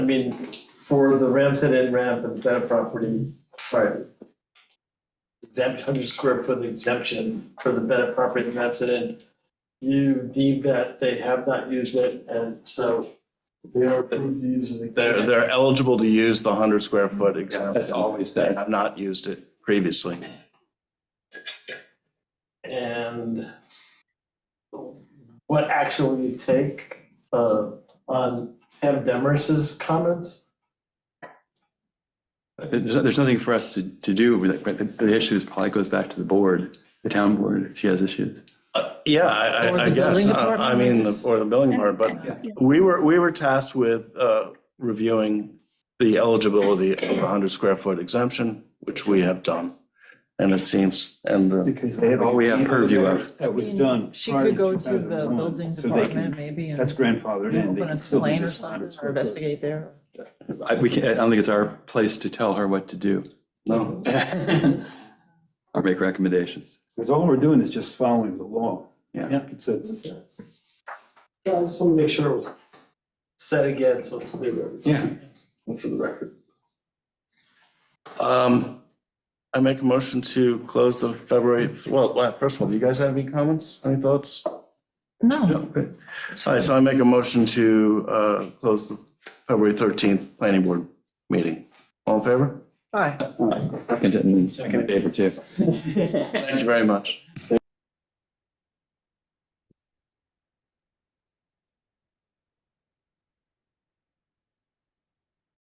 I mean, for the Ram's Head Inn ramp and that property, private. Exempt hundred square foot exemption for the Bennett property and Ram's Head Inn. You deem that they have not used it and so they are approved to use it. They're, they're eligible to use the hundred square foot exemption. That's all we say. They have not used it previously. and what action will you take uh on Pam Demers's comments? There's, there's nothing for us to, to do with it, but the, the issue is probably goes back to the board, the town board, if she has issues. Uh, Yeah, I, Or I, I the guess, building uh, I mean, the- department. or the building part, Yeah. but we were, we were tasked with uh, reviewing the eligibility of a hundred square foot exemption, which we have done. And it seems, and uh, the Because They have all we have purview of. That was mean, done. She prior could go to the 2001, building so they can- department maybe and That's grandfathered in. They open can a still do complaint or this something 100 or square foot. investigate there. I, we can't, I don't think it's our place to tell her what to do no, or make recommendations. Because all we're doing is just following the law. Yeah. It's a, Yeah, I just want to make sure it was said again, so it's clear. Yeah. For the record. um, I make a motion to close the February, well, well, first of all, do you guys have any comments, any thoughts? No, Good. All right, so I make a motion to uh, close the February 13th planning board meeting. All in favor? hi. Second, and second favor too. Thank you very much.